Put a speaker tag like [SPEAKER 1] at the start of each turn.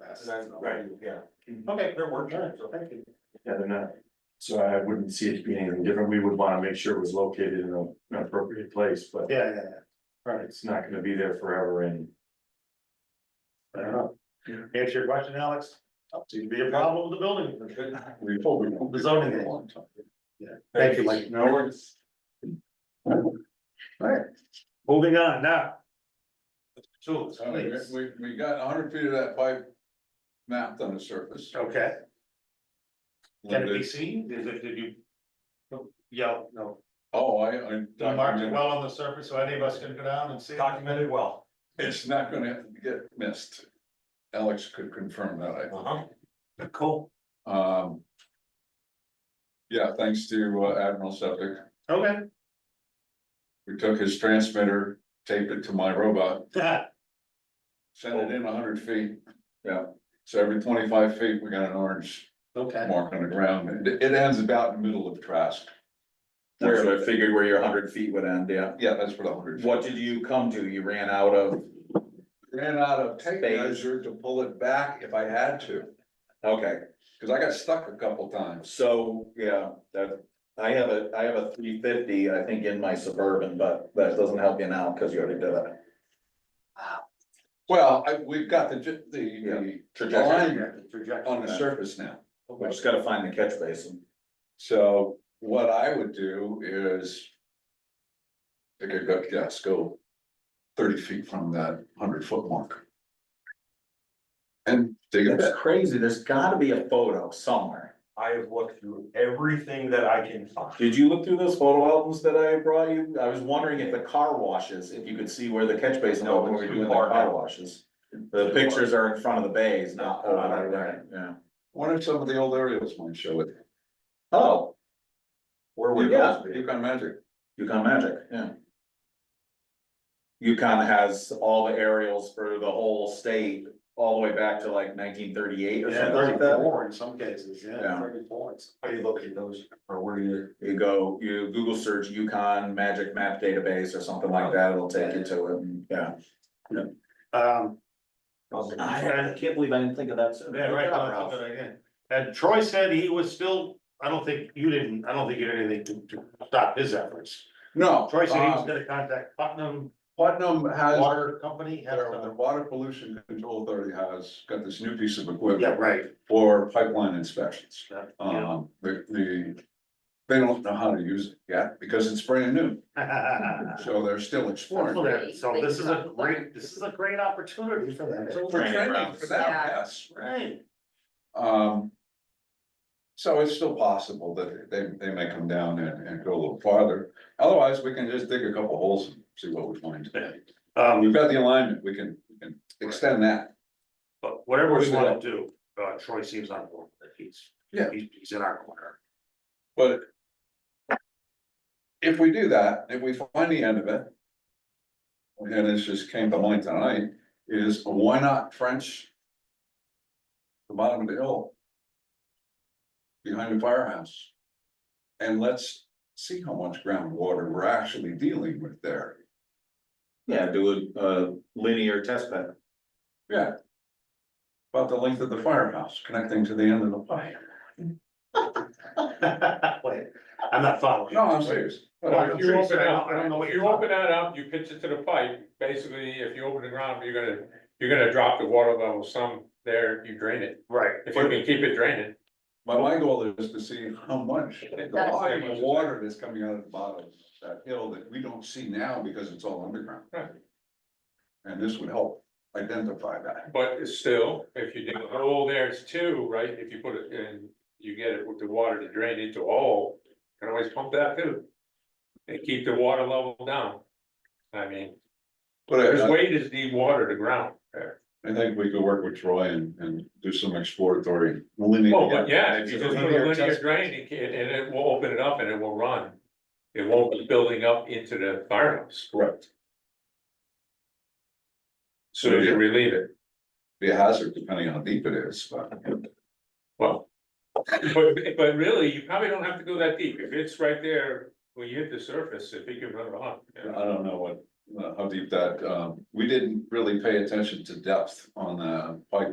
[SPEAKER 1] past.
[SPEAKER 2] Right, yeah.
[SPEAKER 1] Okay, they're working, so thank you.
[SPEAKER 2] Yeah, they're not. So I wouldn't see it being anything different. We would wanna make sure it was located in a- an appropriate place, but
[SPEAKER 1] Yeah, yeah, yeah.
[SPEAKER 2] it's not gonna be there forever and.
[SPEAKER 1] I don't know. Answer your question, Alex. Seems to be a problem with the building.
[SPEAKER 2] We
[SPEAKER 1] The zoning. law. Yeah, thank you, Mike.
[SPEAKER 2] No worries.
[SPEAKER 1] Alright. Moving on now. Tools,
[SPEAKER 3] Oh,
[SPEAKER 4] I mean,
[SPEAKER 1] please.
[SPEAKER 4] we, we got hundred feet of that pipe mapped on the surface.
[SPEAKER 1] Okay, can it be
[SPEAKER 4] Limited.
[SPEAKER 1] seen? Is it, did you? Yeah, no.
[SPEAKER 4] Oh, I, I.
[SPEAKER 1] You marked it
[SPEAKER 4] documented.
[SPEAKER 1] well on the surface, so any of us can go down and see. it?
[SPEAKER 3] documented well.
[SPEAKER 4] It's not gonna get missed. Alex could confirm that, I
[SPEAKER 3] Uh-huh.
[SPEAKER 1] Cool.
[SPEAKER 4] Um. Yeah, thanks to uh, Admiral Septic,
[SPEAKER 1] Okay.
[SPEAKER 4] we took his transmitter, taped it to my robot, sent it in hundred feet. Yeah, so every twenty-five feet, we got an orange
[SPEAKER 1] Okay.
[SPEAKER 4] mark on the ground, it, it ends about in the middle of Trask.
[SPEAKER 5] That's what I figured where your hundred feet would end, yeah.
[SPEAKER 4] Yeah, that's what a hundred.
[SPEAKER 5] What did you come to? You ran out of,
[SPEAKER 4] Ran out of tape
[SPEAKER 5] Space.
[SPEAKER 4] measure to pull it back if I had to,
[SPEAKER 5] okay,
[SPEAKER 4] cause I got stuck a couple times.
[SPEAKER 5] so, yeah, that, I have a, I have a three fifty, I think, in my Suburban, but that doesn't help you now, cause you already did it.
[SPEAKER 4] Well, I, we've got the, ju-
[SPEAKER 5] Yeah.
[SPEAKER 4] the, the line
[SPEAKER 5] Trajectory.
[SPEAKER 4] on the surface now.
[SPEAKER 5] We just gotta find the catch basin.
[SPEAKER 4] So what I would do is. I could go, yes, go thirty feet from that hundred foot mark. And dig it
[SPEAKER 5] That's
[SPEAKER 4] back.
[SPEAKER 5] crazy. There's gotta be a photo somewhere.
[SPEAKER 3] I have looked through everything that I can find.
[SPEAKER 5] Did you look through those photo albums that I brought you? I was wondering if the car washes, if you could see where the catch basin,
[SPEAKER 3] No,
[SPEAKER 5] was when we
[SPEAKER 3] it's
[SPEAKER 5] were
[SPEAKER 3] too
[SPEAKER 5] doing the
[SPEAKER 3] far
[SPEAKER 5] car
[SPEAKER 3] now.
[SPEAKER 5] washes. The pictures are in front of the bays, not
[SPEAKER 3] Uh,
[SPEAKER 5] over there, yeah.
[SPEAKER 4] What if some of the old aerials might show it?
[SPEAKER 5] Oh,
[SPEAKER 3] Where would
[SPEAKER 5] Yeah.
[SPEAKER 3] those be?
[SPEAKER 4] Yukon Magic.
[SPEAKER 5] Yukon Magic, yeah. Yukon has all the aerials for the whole state, all the way back to like nineteen thirty-eight or
[SPEAKER 1] Yeah,
[SPEAKER 5] something like that.
[SPEAKER 1] thirty-four in some cases, yeah,
[SPEAKER 5] Yeah.
[SPEAKER 1] thirty-four. It's-
[SPEAKER 3] How do you look at those? Or where do you?
[SPEAKER 5] You go, you Google search Yukon Magic Map Database or something like that, it'll take you to it, and, yeah.
[SPEAKER 1] Um,
[SPEAKER 5] can't believe I didn't think of that.
[SPEAKER 1] yeah, right, no, that's a good idea. And Troy said he was still, I don't think, you didn't, I don't think you did anything to, to stop his efforts.
[SPEAKER 4] No.
[SPEAKER 1] Troy said he was
[SPEAKER 4] um,
[SPEAKER 1] gonna contact Putnam
[SPEAKER 4] Putnam has,
[SPEAKER 1] Water Company, had
[SPEAKER 4] their- their
[SPEAKER 1] a-
[SPEAKER 4] water pollution control authority has got this new piece of equipment.
[SPEAKER 1] yeah, right.
[SPEAKER 4] for pipeline inspections.
[SPEAKER 1] yeah, yeah.
[SPEAKER 4] Um, the, the, they don't know how to use it yet because it's brand new, so they're still exploring.
[SPEAKER 1] Yeah, So this is a great, this is a great opportunity for them.
[SPEAKER 4] So we're training for that,
[SPEAKER 6] Yeah.
[SPEAKER 4] yes.
[SPEAKER 1] Right.
[SPEAKER 4] Um, so it's still possible that they, they may come down and, and go a little farther. Otherwise, we can just dig a couple holes and see what we find. We've
[SPEAKER 1] Um,
[SPEAKER 4] got the alignment, we can, we can extend that.
[SPEAKER 1] but whatever we wanna do, uh, Troy seems on board, with it. he's,
[SPEAKER 4] Yeah.
[SPEAKER 1] he's, he's in our corner.
[SPEAKER 4] But if we do that, if we find the end of it, and this just came to mind tonight, is why not French the bottom of the hill behind the firehouse? And let's see how much groundwater we're actually dealing with there.
[SPEAKER 5] Yeah, do a, a linear test bed.
[SPEAKER 4] Yeah. About the length of the firehouse connecting to the end of the pipe.
[SPEAKER 1] Wait, I'm not following.
[SPEAKER 4] No, I'm serious.
[SPEAKER 1] Well, if you open it up, I don't know what
[SPEAKER 7] If
[SPEAKER 1] you're
[SPEAKER 7] you
[SPEAKER 1] talking
[SPEAKER 7] open that up, you pitch it to the pipe, basically, if you open the ground, you're gonna, you're gonna drop the water level some there, you drain it.
[SPEAKER 1] Right.
[SPEAKER 7] If you can keep it draining,
[SPEAKER 4] But my goal is to see how much, the volume of water that's coming out of the bottom of that hill that we don't see now because it's all underground.
[SPEAKER 7] Right.
[SPEAKER 4] And this would help identify that.
[SPEAKER 7] but it's still, if you dig a hole, there's two, right, if you put it in, you get it with the water to drain into a hole. you Can always pump that too. And keep the water level down. I mean,
[SPEAKER 4] But
[SPEAKER 7] there's
[SPEAKER 4] I,
[SPEAKER 7] way to dewater the ground there.
[SPEAKER 4] I think we could work with Troy and, and do some exploratory linear.
[SPEAKER 7] Oh, but yeah, if you just put a
[SPEAKER 4] Linear
[SPEAKER 7] linear
[SPEAKER 4] test.
[SPEAKER 7] drain, it can- and it will open it up and it will run. It won't be building up into the firehouse.
[SPEAKER 4] Correct.
[SPEAKER 7] So you relieve it,
[SPEAKER 4] Be a hazard depending on how deep it is, but
[SPEAKER 7] well. But, but really, you probably don't have to go that deep, if it's right there, when you hit the surface, if you can run it on.
[SPEAKER 4] I don't know uh, what, how deep that, um, we didn't really pay attention to depth on the pipe